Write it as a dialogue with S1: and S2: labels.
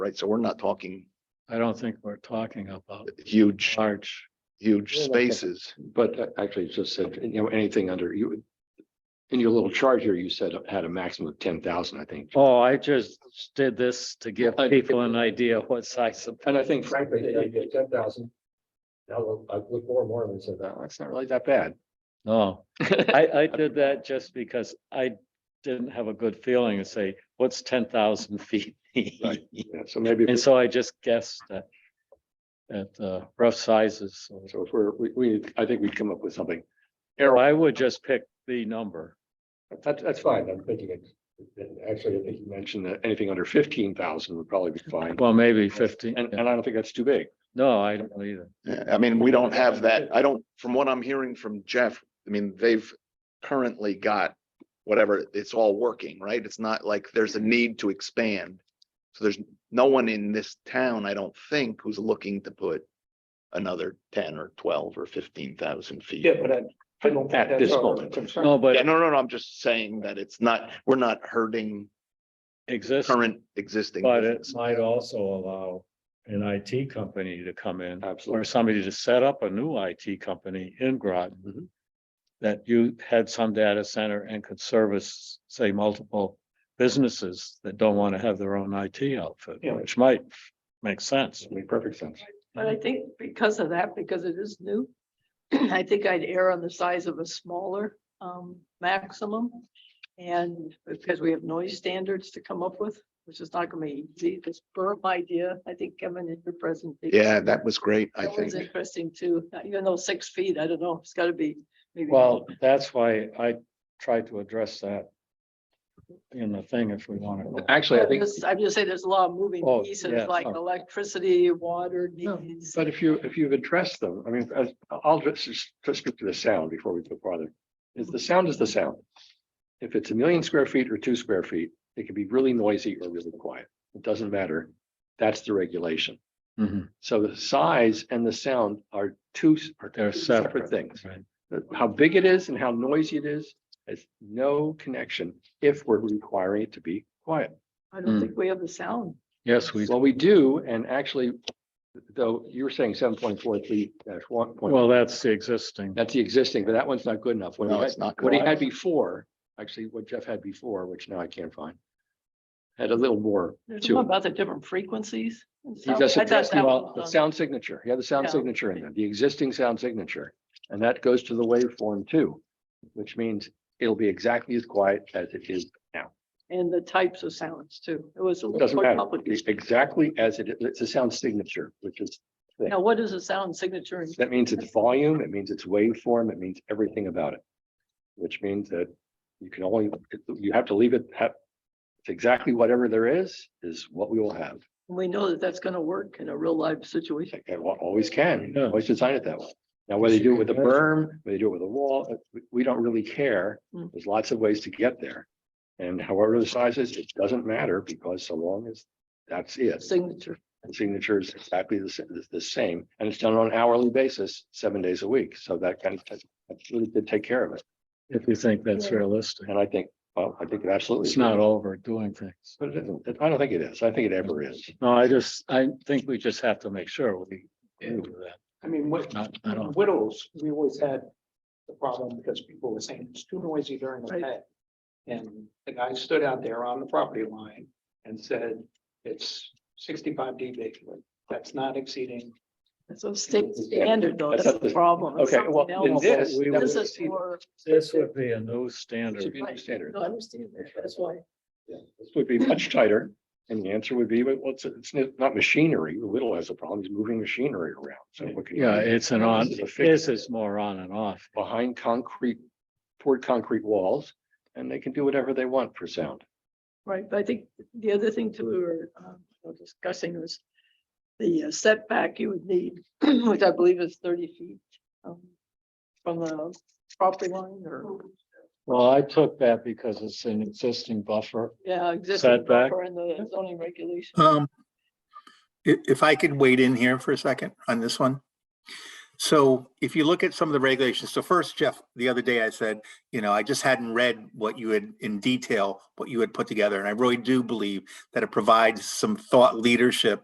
S1: right? So we're not talking
S2: I don't think we're talking about
S1: huge,
S2: large,
S1: huge
S3: Uh, Yeah, like a-
S1: spaces.
S3: But uh, actually, it just said, you know, anything under you. In your little chart here, you said it had a maximum of ten thousand, I think.
S2: oh, I just did this to give
S3: I-
S2: people an idea what size of.
S3: And I think frankly, they get ten thousand. Now, I look more and more and said, oh, it's not really that bad.
S2: No, I, I did that just because I didn't have a good feeling to say, what's ten thousand feet?
S3: Right. Yeah, So maybe,
S2: And so I just guessed at, at uh, rough sizes. So
S3: so if we're, we, we, I think we'd come up with something.
S2: I would just pick the number.
S3: That's, that's fine. I'm thinking it. and Actually, I think you mentioned that anything under fifteen thousand would probably be fine.
S2: Well, maybe fifteen.
S3: And, and I don't think that's too big.
S2: No, I don't either.
S1: Yeah, I mean, we don't have that. I don't, from what I'm hearing from Jeff, I mean, they've currently got whatever, it's all working, right? It's not like there's a need to expand. So there's no one in this town, I don't think, who's looking to put another ten or twelve or fifteen thousand feet.
S3: but I, I don't. At this moment.
S2: No,
S1: Yeah,
S2: but
S1: no, no, no, I'm just saying that it's not, we're not hurting
S2: exists,
S1: current existing.
S2: but it
S1: business.
S2: might also allow an IT company to come in or
S3: Absolutely.
S2: somebody to set up a new IT company in Groton.
S3: Mhm.
S2: That you had some data center and could service, say, multiple businesses that don't want to have their own IT outfit,
S3: Yeah.
S2: which might make sense.
S3: Made perfect sense.
S4: But I think because of that, because it is new, I think I'd err on the size of a smaller um maximum. And because we have noise standards to come up with, which is not gonna be easy, this burp idea, I think Kevin in your presentation.
S1: Yeah, that was great, I
S4: That
S1: think.
S4: was interesting too, even though six feet, I don't know, it's gotta be maybe.
S2: Well, that's why I tried to address that. In the thing if we want to.
S3: Actually, I think.
S4: I'm just saying, there's a lot of moving
S2: Oh, yeah,
S4: pieces like
S2: sorry.
S4: electricity, water
S3: No,
S4: needs.
S3: But if you, if you've addressed them, I mean, as- I'll just, just speak to the sound before we go farther. Is the sound is the sound. If it's a million square feet or two square feet, it can be really noisy or really quiet. It doesn't matter. That's the regulation.
S2: Mhm.
S3: So the size and the sound are two s- are
S2: They're
S3: two separate things.
S2: Right.
S3: How big it is and how noisy it is has no connection if we're requiring it to be quiet.
S4: I
S2: Mm.
S3: Hmm.
S4: don't think we have the sound.
S2: Yes, we,
S3: Well, we do, and actually, though, you were saying seven point four three dash one
S2: well, that's the existing.
S3: That's the existing, but that one's not good enough. What he
S1: No,
S3: had-
S1: it's not.
S3: What he
S1: good.
S3: had before, actually, what Jeff had before, which now I can't find. Had a little more
S4: There's
S3: to
S4: something
S3: it.
S4: about the different frequencies. and
S3: He
S4: stuff.
S3: just
S4: I thought
S3: addressed
S4: that
S3: the
S4: was
S3: the
S4: done.
S3: sound signature. He had the sound
S4: Yeah.
S3: signature in there, the existing sound signature. And that goes to the waveform too, which means it'll be exactly as quiet as it is.
S4: And the types of sounds too. It was a little
S3: Doesn't
S4: more
S3: matter.
S4: complicated.
S3: Exactly as it is. It's a sound signature, which is
S4: Now, what is a sound signature? in-
S3: That means it's volume, it means it's waveform, it means everything about it. Which means that you can only, you have to leave it, have, it's exactly whatever there is, is what we will have.
S4: We know that that's gonna work in a real life situation.
S3: Like, I wa- always can,
S2: Yeah.
S3: always design it that way. Now, whether you do it with a berm, whether you do it with a wall, uh, we- we don't really care.
S4: Mm.
S3: There's lots of ways to get there. And however the size is, it doesn't matter because so long as that's it,
S4: Signature.
S3: the signature is exactly the, sa- the- the same, and it's done on an hourly basis, seven days a week, so that kind of, that really did take care of it,
S2: If you think that's realistic,
S3: and I think, well, I think it absolutely.
S2: it's not overdoing things.
S3: But it isn't, I don't think it is, I think it ever is.
S2: No, I just, I think we just have to make sure we agree with that.
S5: I mean, with
S2: Not, I don't,
S5: widows, we always had the problem because people were saying it's too noisy during the
S4: Right.
S5: day. And the guy stood out there on the property line and said, it's sixty-five dB, that's not exceeding.
S4: It's a state standard though.
S3: That's
S4: That's
S3: not
S4: the
S3: the-
S4: problem. It's
S3: okay,
S4: something
S3: well, in
S4: else.
S3: this,
S2: we
S3: that
S4: This
S3: would
S4: is
S3: exceed-
S4: for.
S2: this would be a new
S3: it should
S2: standard.
S3: be the standard.
S4: No, I understand that. That's why.
S3: Yeah, This would be much tighter, and the answer would be, well, it's, it's not machinery, Whittle has a problem, he's moving machinery around, so. what can you
S2: Yeah,
S3: do?
S2: it's an on,
S3: This is a fixed-
S2: this is more on and off.
S3: Behind concrete, toward concrete walls, and they can do whatever they want for sound.
S4: Right, but I think the other thing too, we were um, you know, discussing was the uh, setback you would need, which I believe is thirty feet um, from the property line or,
S2: Well, I took that because it's an existing buffer.
S4: yeah, existing
S2: Setback.
S4: buffer in the zoning
S6: Uh,
S4: regulation.
S6: Um, i- if I could wade in here for a second on this one. So if you look at some of the regulations, so first, Jeff, the other day I said, you know, I just hadn't read what you had in detail, what you had put together. And I really do believe that it provides some thought leadership